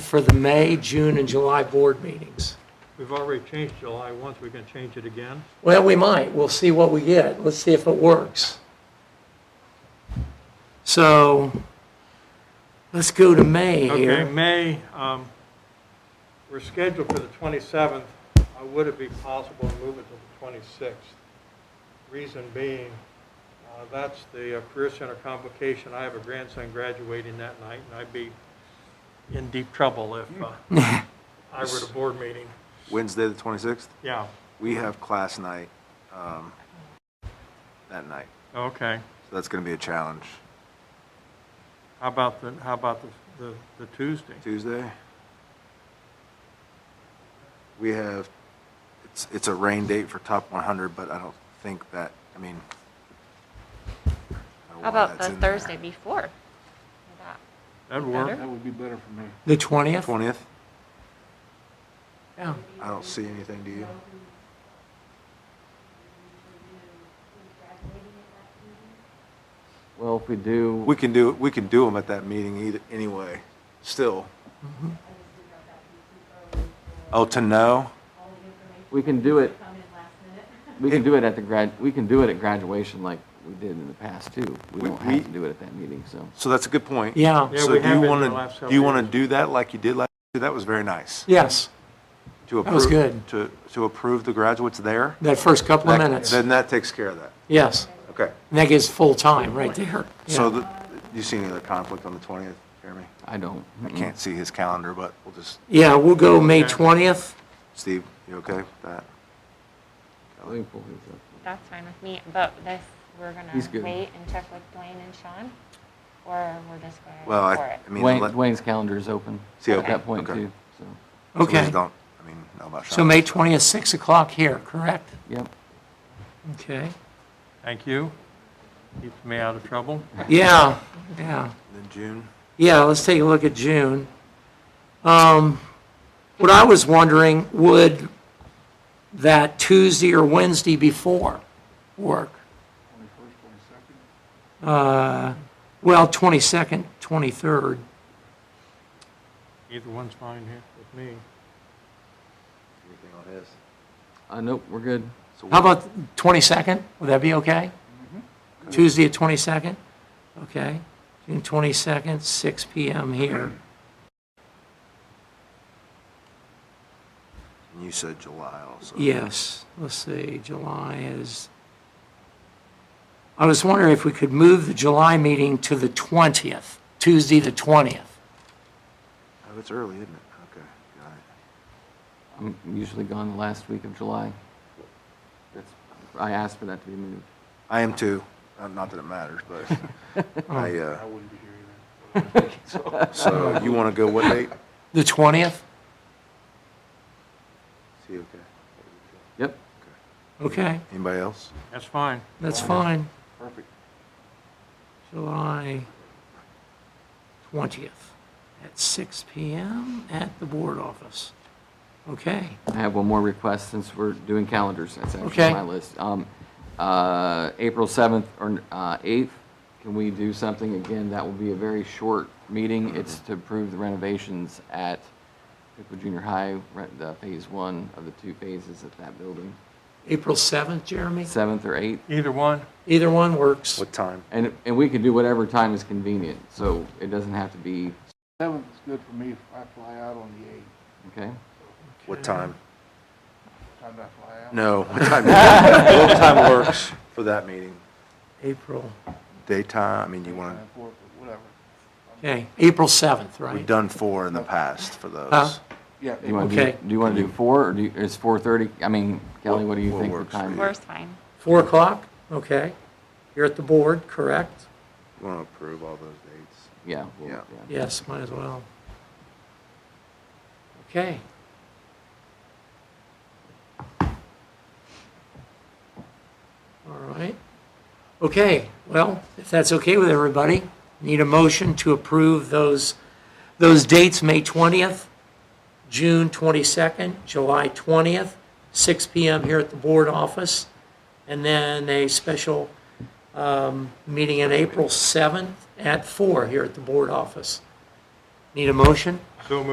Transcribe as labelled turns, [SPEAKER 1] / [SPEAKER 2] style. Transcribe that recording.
[SPEAKER 1] for the May, June, and July board meetings.
[SPEAKER 2] We've already changed July once, we can change it again.
[SPEAKER 1] Well, we might. We'll see what we get. Let's see if it works. So let's go to May
[SPEAKER 2] Okay,
[SPEAKER 1] here.
[SPEAKER 2] May, um, we're scheduled for the 27th. Uh, Would it be possible to move it to the 26th? Reason being, uh, that's the uh, Career Center convocation. I have a grandson graduating that night, and I'd be in deep trouble if uh, I were at a board meeting.
[SPEAKER 3] Wednesday, the 26th,
[SPEAKER 2] Yeah,
[SPEAKER 3] we have class night um, that night.
[SPEAKER 2] okay.
[SPEAKER 3] So that's going to be a challenge.
[SPEAKER 2] How about the, how about the- the the Tuesday?
[SPEAKER 3] Tuesday, we have, it's, it's a rain date for top 100, but I don't think that, I mean. I don't know
[SPEAKER 4] How
[SPEAKER 3] why
[SPEAKER 4] about
[SPEAKER 3] that's
[SPEAKER 4] the
[SPEAKER 3] in there.
[SPEAKER 4] Thursday before?
[SPEAKER 2] That'd work.
[SPEAKER 4] Better?
[SPEAKER 5] would be better for me.
[SPEAKER 1] The 20th?
[SPEAKER 3] 20th?
[SPEAKER 1] Yeah.
[SPEAKER 3] I don't see anything, do you?
[SPEAKER 5] Well, if we do,
[SPEAKER 3] We can do, we can do them at that meeting either, anyway, still. Oh, to know?
[SPEAKER 5] we can do it. We can do it at the grad, we can do it at graduation like we did in the past too. We
[SPEAKER 3] We-
[SPEAKER 5] don't
[SPEAKER 3] we-
[SPEAKER 5] have to do it at that meeting, so.
[SPEAKER 3] So that's a good point.
[SPEAKER 1] Yeah,
[SPEAKER 2] Yeah,
[SPEAKER 3] So
[SPEAKER 2] we
[SPEAKER 3] do
[SPEAKER 2] have
[SPEAKER 3] you
[SPEAKER 2] been
[SPEAKER 3] want
[SPEAKER 2] the last
[SPEAKER 3] to,
[SPEAKER 2] several
[SPEAKER 3] do you want
[SPEAKER 2] years.
[SPEAKER 3] to do that like you did last year? That was very nice.
[SPEAKER 1] yes.
[SPEAKER 3] To
[SPEAKER 1] That was
[SPEAKER 3] approve-
[SPEAKER 1] good.
[SPEAKER 3] To, to approve the graduates there?
[SPEAKER 1] That first couple of
[SPEAKER 3] That-
[SPEAKER 1] minutes.
[SPEAKER 3] Then that takes care of that.
[SPEAKER 1] Yes.
[SPEAKER 3] Okay.
[SPEAKER 1] And that gives full time right there.
[SPEAKER 3] So
[SPEAKER 1] Yeah.
[SPEAKER 3] the, you see any other conflict on the 20th, Jeremy?
[SPEAKER 5] I don't.
[SPEAKER 3] I can't see his calendar, but we'll just,
[SPEAKER 1] Yeah, we'll go May
[SPEAKER 2] Okay.
[SPEAKER 1] 20th.
[SPEAKER 3] Steve, you okay with that?
[SPEAKER 5] I think we'll do so.
[SPEAKER 4] That's fine with me, but this, we're gonna
[SPEAKER 5] He's good.
[SPEAKER 4] wait and check with Blaine and Sean? Or we're just gonna
[SPEAKER 3] Well, I,
[SPEAKER 4] go for it?
[SPEAKER 3] I mean.
[SPEAKER 5] Wayne,
[SPEAKER 3] let-
[SPEAKER 5] Wayne's calendar is open
[SPEAKER 3] See,
[SPEAKER 5] at
[SPEAKER 3] okay,
[SPEAKER 5] that point
[SPEAKER 3] okay.
[SPEAKER 5] too, so,
[SPEAKER 3] some of these
[SPEAKER 1] Okay.
[SPEAKER 3] Don't, I mean, know about
[SPEAKER 1] So
[SPEAKER 3] Sean.
[SPEAKER 1] May 20th, 6 o'clock here, correct?
[SPEAKER 5] yep.
[SPEAKER 1] Okay.
[SPEAKER 2] Thank you. Keeps me out of trouble.
[SPEAKER 1] Yeah, yeah.
[SPEAKER 3] Then June?
[SPEAKER 1] Yeah, let's take a look at June. Um, What I was wondering, would that Tuesday or Wednesday before work? 21st, 22nd? Uh, Well, 22nd, 23rd.
[SPEAKER 2] Either one's fine here with me.
[SPEAKER 3] Anything on his?
[SPEAKER 5] Uh, nope, we're good.
[SPEAKER 3] So
[SPEAKER 1] How about 22nd? Would that be okay? Tuesday at 22nd? Okay. June 22nd, 6 PM here.
[SPEAKER 3] And You said July also.
[SPEAKER 1] Yes, let's see, July is, I was wondering if we could move the July meeting to the 20th, Tuesday, the 20th.
[SPEAKER 3] Oh, it's early, isn't it? Okay, got it.
[SPEAKER 5] I'm usually gone the last week of July. That's, I asked for that to be moved.
[SPEAKER 3] I am too. Uh, Not that it matters, but I, uh, so you want to go what date?
[SPEAKER 1] The 20th?
[SPEAKER 3] See, okay.
[SPEAKER 5] Yep,
[SPEAKER 1] Okay,
[SPEAKER 3] Anybody else?
[SPEAKER 2] That's fine.
[SPEAKER 1] that's fine.
[SPEAKER 3] Perfect.
[SPEAKER 1] July 20th at 6 PM at the board office. Okay,
[SPEAKER 5] I have one more request since we're doing calendars. That's actually
[SPEAKER 1] Okay.
[SPEAKER 5] on my list. Um, uh, April 7th or uh, 8th, can we do something? Again, that will be a very short
[SPEAKER 1] Mm-hmm.
[SPEAKER 5] meeting. It's to approve the renovations at Pickle Junior High, re- the phase one of the two phases at that building,
[SPEAKER 1] April 7th, Jeremy?
[SPEAKER 5] 7th or 8th.
[SPEAKER 2] Either one.
[SPEAKER 1] Either one works.
[SPEAKER 3] What time?
[SPEAKER 5] And, and we can do whatever time is convenient, so it doesn't have to be,
[SPEAKER 6] Seventh is good for me if I fly out on the eighth.
[SPEAKER 5] okay?
[SPEAKER 3] What time?
[SPEAKER 6] Time do I fly out?
[SPEAKER 3] No, what time? What time works for that meeting?
[SPEAKER 1] April,
[SPEAKER 3] Daytime, I mean, you want
[SPEAKER 6] Nine, four, but Whatever.
[SPEAKER 1] okay, April 7th,
[SPEAKER 3] to, we've
[SPEAKER 1] right?
[SPEAKER 3] done four in the past for those.
[SPEAKER 6] Yeah.
[SPEAKER 5] Do you wanna do-
[SPEAKER 1] Okay.
[SPEAKER 5] Do you want to do 4, or do you, is 4:30? I mean, Kelly, what do you
[SPEAKER 3] What- what
[SPEAKER 5] think the
[SPEAKER 3] works for
[SPEAKER 5] time?
[SPEAKER 3] you?
[SPEAKER 4] Four's fine.
[SPEAKER 1] 4 o'clock, okay. You're at the board, correct?
[SPEAKER 3] You want to approve all those dates?
[SPEAKER 5] Yeah. we'll-
[SPEAKER 3] Yeah.
[SPEAKER 1] Yes, might as well. Okay. All right. Okay, well, if that's okay with everybody, need a motion to approve those, those dates, May 20th, June 22nd, July 20th, 6 PM here at the board office, and then a special um, meeting on April 7th at 4 here at the board office. Need a motion?
[SPEAKER 2] So moved.